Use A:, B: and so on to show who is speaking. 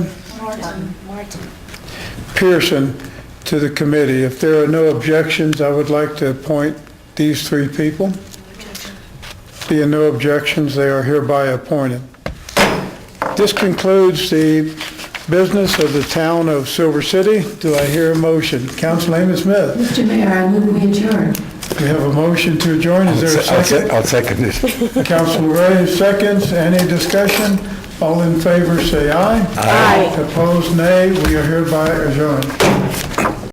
A: Martin, Martin.
B: Pearson to the committee. If there are no objections, I would like to appoint these three people. Being no objections, they are hereby appointed. This concludes the business of the town of Silver City. Do I hear a motion? Council Lehman Smith,
A: Mr. Mayor, I move we adjourn.
B: we have a motion to adjourn. Is there a
C: I'll
B: second?
C: se- I'll second it.
B: Council Ray, seconds. Any discussion? All in favor, say aye. Aye. Opposed, nay. We are hereby adjourned.